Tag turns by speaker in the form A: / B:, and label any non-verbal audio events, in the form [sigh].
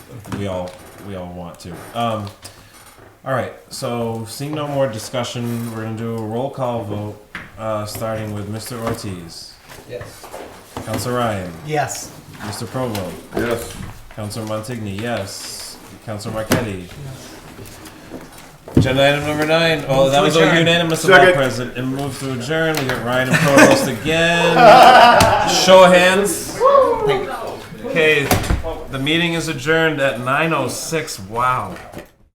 A: we all we all want to. Um, all right. So seeing no more discussion, we're gonna do a roll call vote, uh, starting with Mr. Ortiz,
B: Yes.
A: Councilor Ryan,
B: Yes.
A: Mr. Provo,
C: Yes.
A: Councilor Montigny, yes, Councilor Marquetti. Agenda item number nine. Oh, that was a
B: adjourn.
A: unanimous about
C: Second.
A: present and move to adjourn. We got Ryan and Provost
C: [laughs]
A: again. Show of hands. Okay, the meeting is adjourned at 9:06. Wow.